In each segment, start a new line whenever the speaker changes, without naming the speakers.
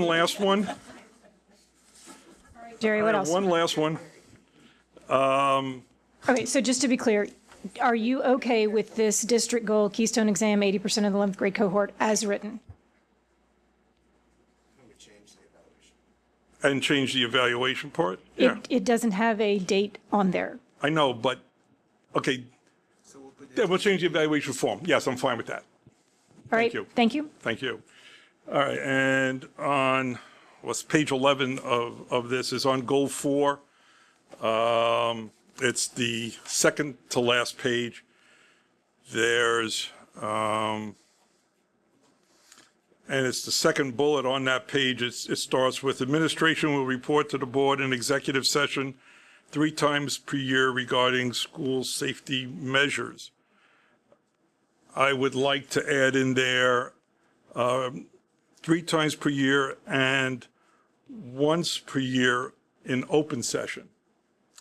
One last one.
Jerry, what else?
One last one.
Okay, so just to be clear, are you okay with this district goal, Keystone exam, 80% of the 11th grade cohort as written?
And change the evaluation part? Yeah,
It, it doesn't have a date on there.
I know, but, okay. Yeah, we'll change the evaluation form. Yes, I'm fine with that.
All right?
you.
Thank you.
Thank you. All right, and on, what's page 11 of, of this is on goal four. Um, It's the second to last page. There's, um, and it's the second bullet on that page. It's, it starts with administration will report to the board in executive session three times per year regarding school safety measures. I would like to add in there three times per year and once per year in open session.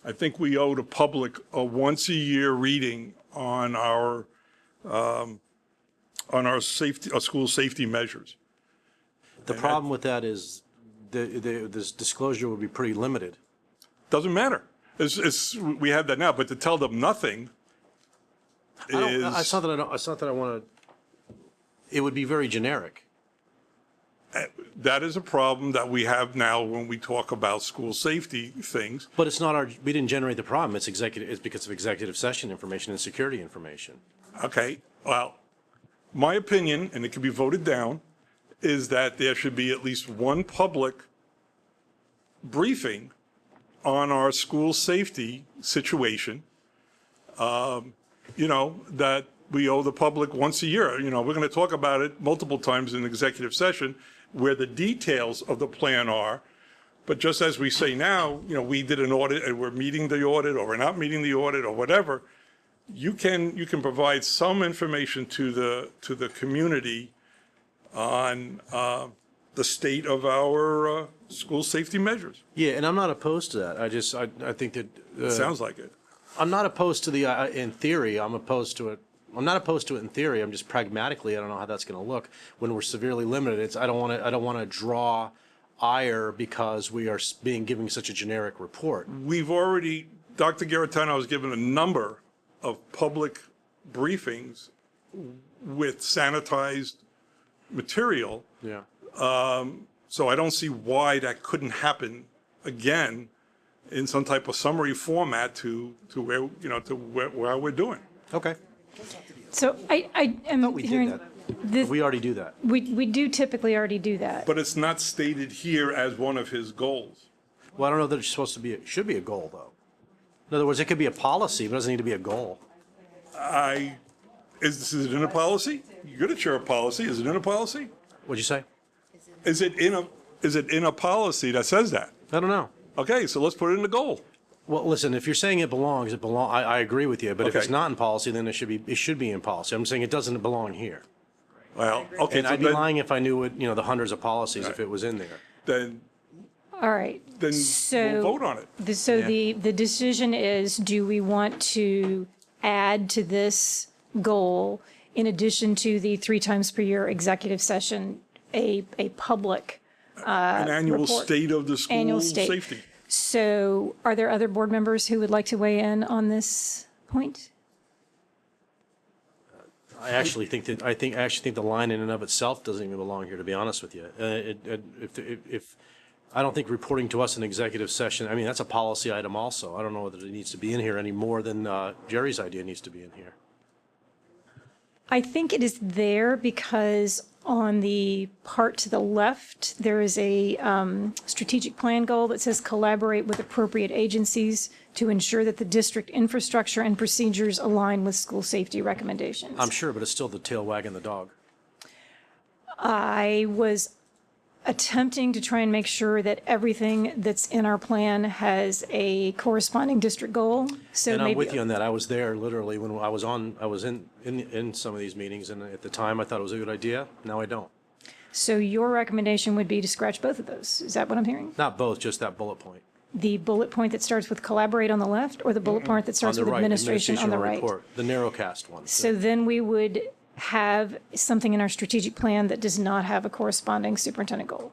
I think we owe the public a once-a-year reading on our, um, on our safety, our school safety measures.
The problem with that is the, the, this disclosure would be pretty limited.
Doesn't matter. It's, it's, we have that now, but to tell them nothing
I don't, I- it's
is,
not that I don't, it's not that I want to, it would be very generic.
that is a problem that we have now when we talk about school safety things.
But it's not our, we didn't generate the problem. It's executive, it's because of executive session information and security information.
Okay, well, my opinion, and it can be voted down, is that there should be at least one public briefing on our school safety situation. Um, You know, that we owe the public once a year. You know, we're going to talk about it multiple times in executive session where the details of the plan are. But just as we say now, you know, we did an audit and we're meeting the audit or we're not meeting the audit or whatever you can, you can provide some information to the, to the community on uh, the state of our uh, school safety measures.
Yeah, and I'm not opposed to that. I just, I, I think that, uh,
Sounds like it.
I'm not opposed to the, uh, in theory, I'm opposed to it. I'm not opposed to it in theory. I'm just pragmatically, I don't know how that's going to look when we're severely limited. It's, I don't want to, I don't want to draw ire because we are s- being, giving such a generic report.
We've already, Dr. Garatano has given a number of public briefings with sanitized material.
Yeah.
So I don't see why that couldn't happen again in some type of summary format to, to where, you know, to where, where we're doing.
Okay.
So I, I am
we did
hearing,
that.
this-
We already do that.
we, we do typically already do that.
But it's not stated here as one of his goals.
Well, I don't know that it's supposed to be, it should be a goal, though. In other words, it could be a policy, but it doesn't need to be a goal.
I, is this, is it in a policy? You're the chair of policy. Is it in a policy?
What'd you say?
Is it in a, is it in a policy that says that?
I don't know.
Okay, so let's put it in the goal.
Well, listen, if you're saying it belongs, it belong, I, I agree with you, but if it's
Okay.
not in policy, then it should be, it should be in policy. I'm saying it doesn't belong here.
Well, okay,
And
so
I'd be
then,
lying if I knew what, you know, the hundreds of policies if it was in there.
then,
All right.
then
So-
we'll vote on it.
The- So
Yeah.
the, the decision is, do we want to add to this goal, in addition to the three times per year executive session, a, a public?
An annual
uh, report.
state of the school
Annual state.
safety.
So are there other board members who would like to weigh in on this point?
I actually think that, I think, I actually think the line in and of itself doesn't even belong here, to be honest with you. Uh, it, it- if, if, if, I don't think reporting to us in executive session, I mean, that's a policy item also. I don't know that it needs to be in here any more than, uh, Jerry's idea needs to be in here.
I think it is there because on the part to the left, there is a um, strategic plan goal that says collaborate with appropriate agencies to ensure that the district infrastructure and procedures align with school safety recommendations.
I'm sure, but it's still the tail wagging the dog.
I was attempting to try and make sure that everything that's in our plan has a corresponding district goal. So
And I'm
maybe-
with you on that. I was there literally when I was on, I was in, in, in some of these meetings and at the time I thought it was a good idea. Now I don't.
So your recommendation would be to scratch both of those. Is that what I'm hearing?
Not both, just that bullet point.
the bullet point that starts with collaborate on the left or the bullet point that
On
starts
the
with
right,
administration on the
administrational
right?
report, The narrowcast one.
So then we would have something in our strategic plan that does not have a corresponding superintendent goal.